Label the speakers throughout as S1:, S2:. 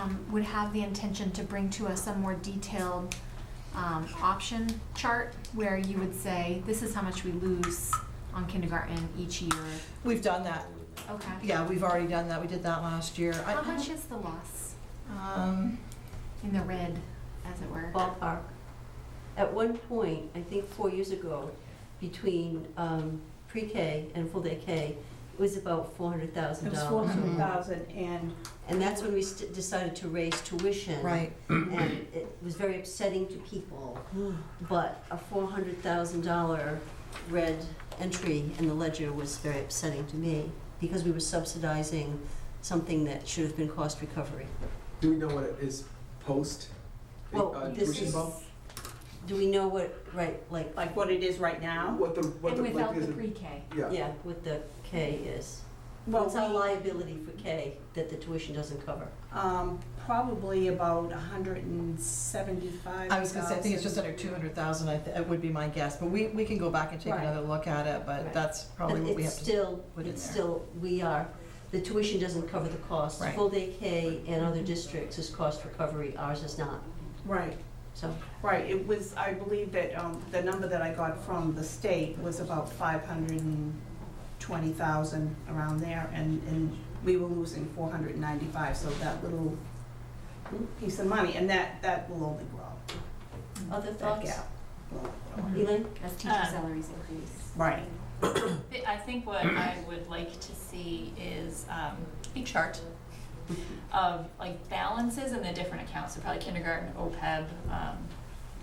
S1: um, would have the intention to bring to us a more detailed um, option chart where you would say, this is how much we lose on kindergarten each year.
S2: We've done that.
S1: Okay.
S2: Yeah, we've already done that. We did that last year. I-
S1: How much is the loss
S2: Um,
S1: in the red, as it were?
S3: ballpark. At one point, I think four years ago, between um, pre-K and full-day K, it was about four hundred thousand
S4: It was four
S3: dollars.
S4: hundred thousand and
S3: And that's when we st- decided to raise tuition.
S2: right.
S3: And it was very upsetting to people, but a four hundred thousand dollar red entry in the ledger was very upsetting to me, because we were subsidizing something that should have been cost recovery.
S5: Do we know what it is post? the, uh,
S3: Well, this
S5: tuition
S3: is,
S5: bump?
S3: do we know what, right, like,
S4: like what it is right now.
S5: What the, what
S1: And
S5: the,
S1: without
S5: like,
S1: the
S5: is it?
S1: pre-K.
S5: Yeah,
S3: yeah, what the K is?
S4: Well,
S3: What's our liability for K that the tuition doesn't cover?
S4: um, probably about a hundred and seventy-five thousand.
S2: I was gonna say, I think it's just under two hundred thousand, I, th- it would be my guess, but we, we can go back and take
S4: Right.
S2: another look at it, but
S3: Right.
S2: that's probably what we have
S3: It's
S2: to.
S3: still,
S2: put in
S3: it's
S2: there.
S3: still, we are, the tuition doesn't cover the cost.
S2: Right.
S3: Full day K and other districts is cost recovery, ours is not,
S4: Right,
S3: so.
S4: right. It was, I believe that, um, the number that I got from the state was about five hundred and twenty thousand around there and, and we were losing four hundred and ninety-five, so that little piece of money, and that, that will only grow,
S3: Other
S4: that
S3: thoughts?
S4: gap. will only grow.
S3: Elaine?
S1: As teacher salaries increase.
S4: Right,
S6: I- I think what I would like to see is um, a chart of like balances in the different accounts, so probably kindergarten, OPEB, um,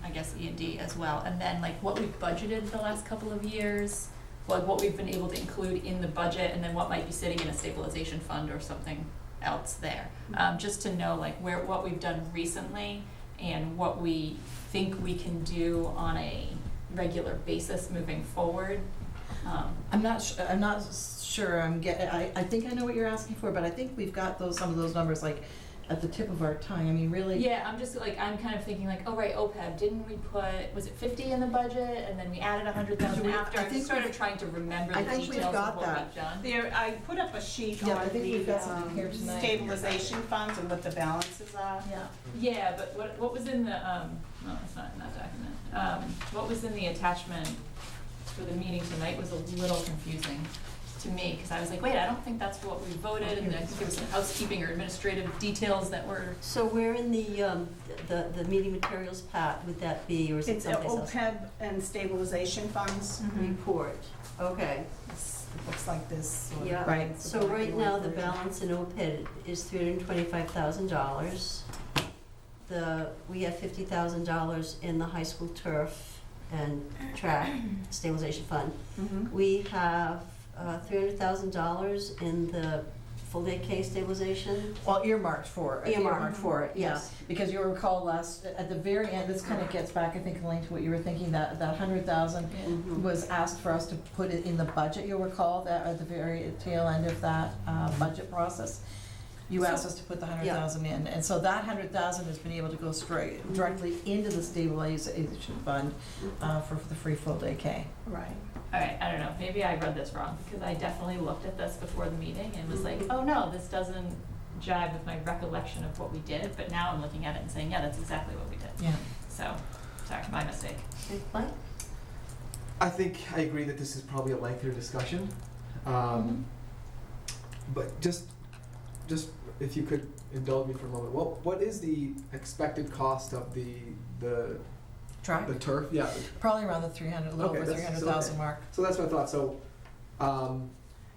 S6: I guess E and D as well, and then like what we've budgeted the last couple of years, like what we've been able to include in the budget, and then what might be sitting in a stabilization fund or something else there. Um, just to know like where, what we've done recently and what we think we can do on a regular basis moving forward. Um,
S2: I'm not, su- I'm not s- sure, I'm get, I, I think I know what you're asking for, but I think we've got those, some of those numbers like at the tip of our tongue, I mean, really.
S6: Yeah, I'm just like, I'm kind of thinking like, oh, right, OPEB, didn't we put, was it fifty in the budget, and then we added a hundred thousand
S2: We-
S6: after,
S2: I
S6: I'm
S2: think
S6: sort
S2: we've-
S6: of trying to remember
S2: I
S6: the
S2: think we've
S6: details of
S2: got
S6: what we've done.
S2: that.
S4: there, I put up a sheet
S2: Yeah, I
S4: on
S2: think we've
S4: the
S2: got something
S4: um,
S2: here tonight.
S4: stabilization funds and what the balances are.
S2: Yeah.
S6: Yeah, but what, what was in the, um, no, it's not in that document, um, what was in the attachment for the meeting tonight was a little confusing to me, cause I was like, wait, I don't think that's what we voted, and I think there was some housekeeping or administrative details that were
S3: So where in the, um, the, the meeting materials part would that be, or is it
S4: It's Mhm. a
S3: someplace else?
S4: OPEB and stabilization funds.
S1: mm-hmm.
S3: Report, okay.
S4: It's- It looks like this. sort of
S3: Yeah.
S2: Right.
S4: thing.
S3: So right now, the
S4: It's a
S3: balance in OPEB is three hundred and twenty-five thousand dollars. The, we have fifty thousand dollars in the high school turf and track stabilization fund.
S4: Mhm.
S3: We have uh, three hundred thousand dollars in the full-day K stabilization. E
S2: Well, earmarked for, it,
S3: Earmarked.
S2: earmarked for it,
S3: Yeah.
S2: yes. Because you recall last, at the very end, this kind of gets back, I think, Elaine, to what you were thinking, that, that hundred thousand was asked for us to put it in the budget, you'll recall, that at the very tail end of that uh, budget process. You asked us to put the hundred thousand in, and so that hundred thousand has been able to go straight, directly into the stabilization fund uh, for the free full day K.
S4: Right.
S6: All right, I don't know, maybe I read this wrong, because I definitely looked at this before the meeting and was like, oh no, this doesn't jive with my recollection of what we did, but now I'm looking at it and saying, yeah, that's exactly what we did.
S2: Yeah.
S6: So, sorry, my mistake.
S3: Mike?
S5: I think I agree that this is probably a lengthier discussion. Um, but just, just if you could indulge me for a moment, what, what is the expected cost of the, the,
S2: Track,
S5: the turf? Yeah,
S2: probably around the three hundred, a little
S5: Okay,
S2: over three
S5: that's-
S2: hundred
S5: so-
S2: thousand mark.
S5: so that's my thought, so, um,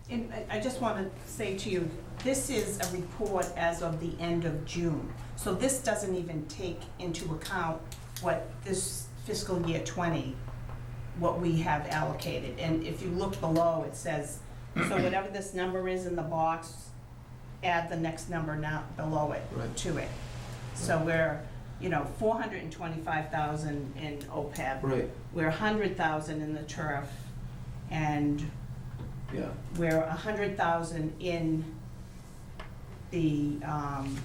S4: And I- I just want to say to you, this is a report as of the end of June. So this doesn't even take into account what this fiscal year 20, what we have allocated. And if you look below, it says, so whatever this number is in the box, add the next number now below it
S5: Right.
S4: to it. So we're, you know, 425,000 in OPEB.
S5: right,
S4: We're 100,000 in the turf and
S5: yeah,
S4: we're a hundred thousand in the, um,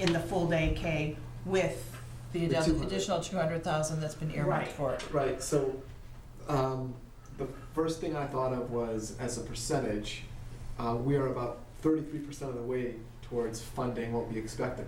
S4: in the full day K with,
S2: The
S5: The
S2: addi-
S5: 200.
S2: additional two hundred thousand that's been earmarked
S4: Right.
S2: for it.
S5: right, so, um, the first thing I thought of was, as a percentage, uh, we are about thirty-three percent of the way towards funding what we expect the